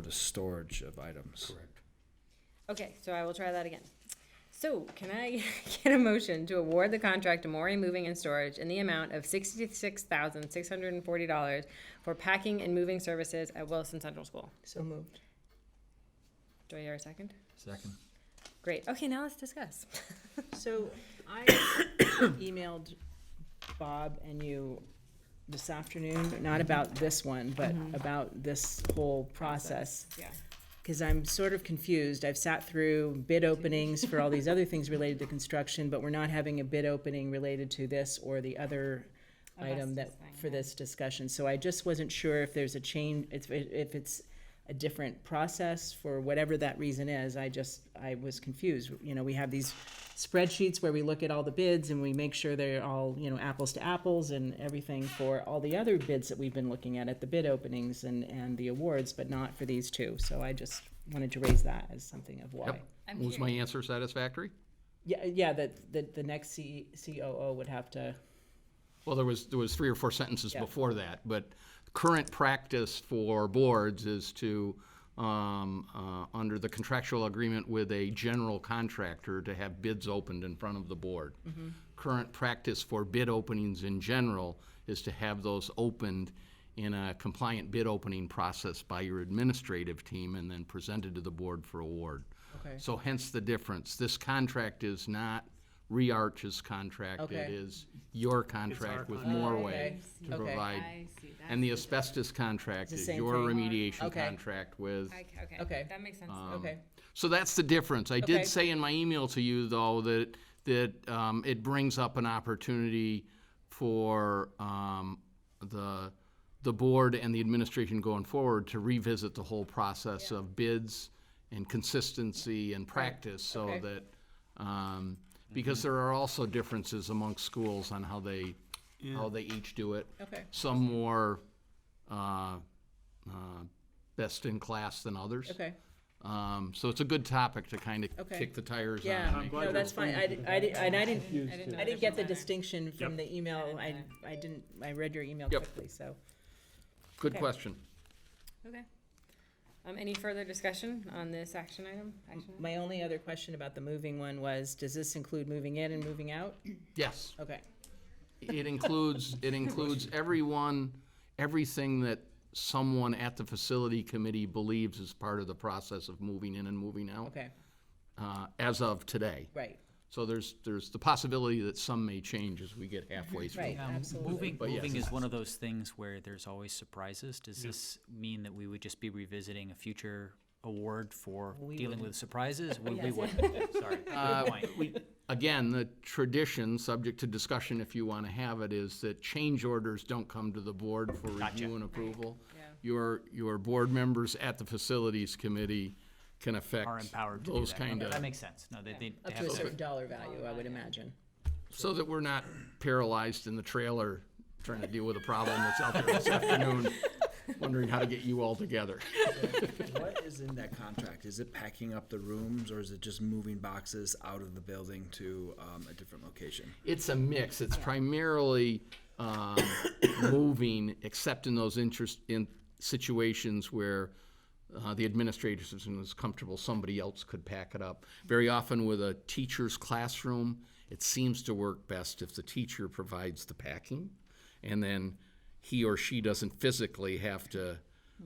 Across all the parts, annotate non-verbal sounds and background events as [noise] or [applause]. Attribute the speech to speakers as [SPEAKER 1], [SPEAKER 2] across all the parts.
[SPEAKER 1] the storage of items.
[SPEAKER 2] Correct.
[SPEAKER 3] Okay, so I will try that again. So can I [laughs] get a motion to award the contract to Maury Moving and Storage in the amount of sixty-six thousand, six hundred and forty dollars for packing and moving services at Wilson Central School?
[SPEAKER 4] So moved.
[SPEAKER 3] Do I hear a second?
[SPEAKER 2] Second.
[SPEAKER 3] Great. Okay, now let's discuss.
[SPEAKER 4] So I emailed Bob and you this afternoon, not about this one, but about this whole Mm-hmm. process.
[SPEAKER 3] Yeah.
[SPEAKER 4] Because I'm sort of confused. I've sat through bid openings for all these other things related to construction, but we're not having a bid opening related to this or the other item that,
[SPEAKER 3] Asbestos thing,
[SPEAKER 4] for
[SPEAKER 3] yeah.
[SPEAKER 4] this discussion. So I just wasn't sure if there's a change, if, if it's a different process for whatever that reason is. I just, I was confused. You know, we have these spreadsheets where we look at all the bids and we make sure they're all, you know, apples to apples and everything for all the other bids that we've been looking at, at the bid openings and, and the awards, but not for these two. So I just wanted to raise that as something of why.
[SPEAKER 2] Yep. Was my answer satisfactory?
[SPEAKER 4] Yeah, yeah, that, that the next C, COO would have to,
[SPEAKER 2] Well, there was, there was three or four sentences
[SPEAKER 4] Yeah.
[SPEAKER 2] before that, but current practice for boards is to, um, uh, under the contractual agreement with a general contractor, to have bids opened in front of the board.
[SPEAKER 4] Mm-hmm.
[SPEAKER 2] Current practice for bid openings in general is to have those opened in a compliant bid opening process by your administrative team and then presented to the board for award.
[SPEAKER 4] Okay.
[SPEAKER 2] So hence the difference. This contract is not Rearch's contract. It
[SPEAKER 4] Okay.
[SPEAKER 2] is your contract with Norway to
[SPEAKER 4] Okay.
[SPEAKER 2] provide.
[SPEAKER 5] I see, that's.
[SPEAKER 2] And the asbestos contract
[SPEAKER 4] It's
[SPEAKER 2] is
[SPEAKER 4] the same
[SPEAKER 2] your
[SPEAKER 4] thing.
[SPEAKER 2] remediation
[SPEAKER 4] Okay.
[SPEAKER 2] contract with.
[SPEAKER 3] Okay,
[SPEAKER 4] Okay. Um,
[SPEAKER 3] that makes sense.
[SPEAKER 4] okay,
[SPEAKER 2] So that's the difference. I
[SPEAKER 4] Okay.
[SPEAKER 2] did say in my email to you, though, that, that um, it brings up an opportunity for um, the, the board and the administration going forward to revisit the whole process of bids and consistency and practice, so
[SPEAKER 4] Okay.
[SPEAKER 2] that, um, because there are also differences amongst schools on how they, how they each do it
[SPEAKER 4] okay.
[SPEAKER 2] some more uh, uh, best in class than others.
[SPEAKER 4] Okay.
[SPEAKER 2] Um, so it's a good topic to kind of
[SPEAKER 4] Okay.
[SPEAKER 2] kick the tires on.
[SPEAKER 4] Yeah,
[SPEAKER 2] and make-
[SPEAKER 4] no, that's fine. I, di- I, di- and I didn't,
[SPEAKER 3] I didn't know the
[SPEAKER 4] I didn't get the
[SPEAKER 3] difference
[SPEAKER 4] distinction from the email. I, I didn't, I read your email
[SPEAKER 2] Yep.
[SPEAKER 4] quickly, so.
[SPEAKER 2] Good question.
[SPEAKER 3] either. Okay. Um, any further discussion on this action item? Action item?
[SPEAKER 4] My only other question about the moving one was, does this include moving in and moving out?
[SPEAKER 2] Yes,
[SPEAKER 4] Okay,
[SPEAKER 2] it includes, it includes everyone, everything that someone at the facility committee believes is part of the process of moving in and moving out
[SPEAKER 4] okay,
[SPEAKER 2] uh, as of today.
[SPEAKER 4] right,
[SPEAKER 2] So there's, there's the possibility that some may change as we get halfway through.
[SPEAKER 4] right,
[SPEAKER 6] Um,
[SPEAKER 4] absolutely.
[SPEAKER 6] Moving,
[SPEAKER 2] But yes.
[SPEAKER 6] moving is one of those things where there's always surprises. Does this mean that we would just be revisiting a future award for dealing with surprises? We, we would, sorry. Good
[SPEAKER 2] Uh,
[SPEAKER 6] point.
[SPEAKER 2] we, again, the tradition, subject to discussion if you want to have it, is that change orders don't come to the board for review and approval. Your, your board members at the facilities committee can affect
[SPEAKER 6] Are empowered to do that.
[SPEAKER 2] those kind
[SPEAKER 6] That
[SPEAKER 2] of,
[SPEAKER 6] makes sense. No, they, they- they
[SPEAKER 4] Up to a
[SPEAKER 6] have,
[SPEAKER 4] certain dollar value, I would imagine.
[SPEAKER 2] so that we're not paralyzed in the trailer trying to deal with a problem that's out there
[SPEAKER 6] [laughs]
[SPEAKER 2] this afternoon, wondering how to get you all together.
[SPEAKER 1] What is in that contract? Is it packing up the rooms or is it just moving boxes out of the building to um, a different location?
[SPEAKER 2] It's a mix. It's primarily um, [coughs] moving, except in those interest, in situations where uh, the administrator is comfortable, somebody else could pack it up. Very often with a teacher's classroom, it seems to work best if the teacher provides the packing, and then he or she doesn't physically have to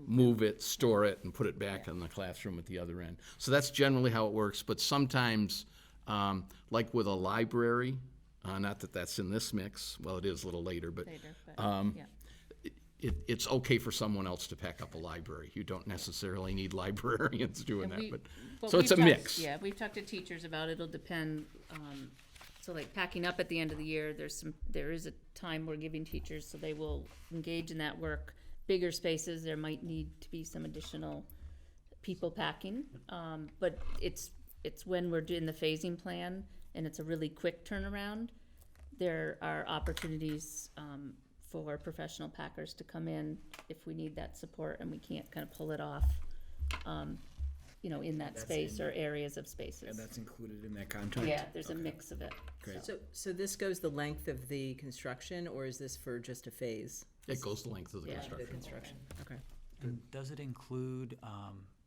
[SPEAKER 2] move it, store it, and put it back in the classroom at the other end. So that's generally how it works, but sometimes, um, like with a library, uh, not that that's in this mix, well, it is a little later, but um, it, it's okay for someone else to pack up a library. You don't necessarily need [laughs] librarians doing that, but, so it's a mix.
[SPEAKER 5] Yeah, we've talked to teachers about it'll depend, um, so like packing up at the end of the year, there's some, there is a time we're giving teachers, so they will engage in that work. Bigger spaces, there might need to be some additional people packing, um, but it's, it's when we're doing the phasing plan and it's a really quick turnaround. There are opportunities, um, for professional packers to come in if we need that support and we can't kind of pull it off, um, you know, in that space or areas of
[SPEAKER 1] And
[SPEAKER 5] spaces.
[SPEAKER 1] that's included in that contract?
[SPEAKER 5] Yeah, there's a mix of it.
[SPEAKER 1] Great.
[SPEAKER 4] So, so this goes the length of the construction, or is this for just a phase?
[SPEAKER 2] It goes the length of the
[SPEAKER 5] Yeah.
[SPEAKER 2] construction.
[SPEAKER 4] Construction, okay.
[SPEAKER 6] And does it include, um,